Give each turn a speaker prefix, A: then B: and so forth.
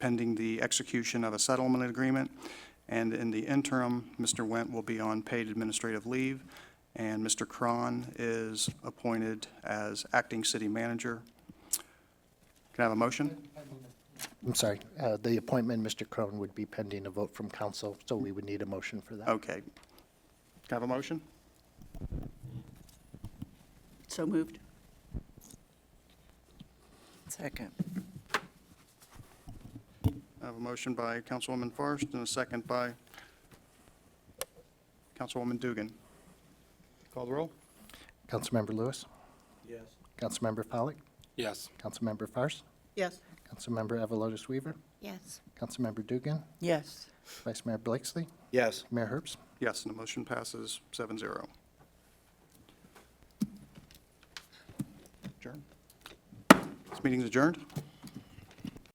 A: pending the execution of a settlement agreement. And in the interim, Mr. Went will be on paid administrative leave, and Mr. Cron is appointed as acting city manager. Can I have a motion?
B: I'm sorry, uh, the appointment, Mr. Crone, would be pending a vote from council, so we would need a motion for that.
A: Okay. Can I have a motion?
C: So moved.
D: Second.
A: I have a motion by Councilwoman Forrest and a second by Councilwoman Dugan. Call the roll?
B: Councilmember Lewis,
E: Yes.
B: Councilmember Pollak,
E: Yes.
B: Councilmember Fairst,
C: Yes.
B: Councilmember Avalotis Weaver,
C: Yes.
B: Councilmember Dugan,
D: Yes.
B: Vice Mayor Blakesley,
E: Yes.
B: Mayor Herbst.
A: Yes, and the motion passes 7-0. Adjourned. This meeting's adjourned.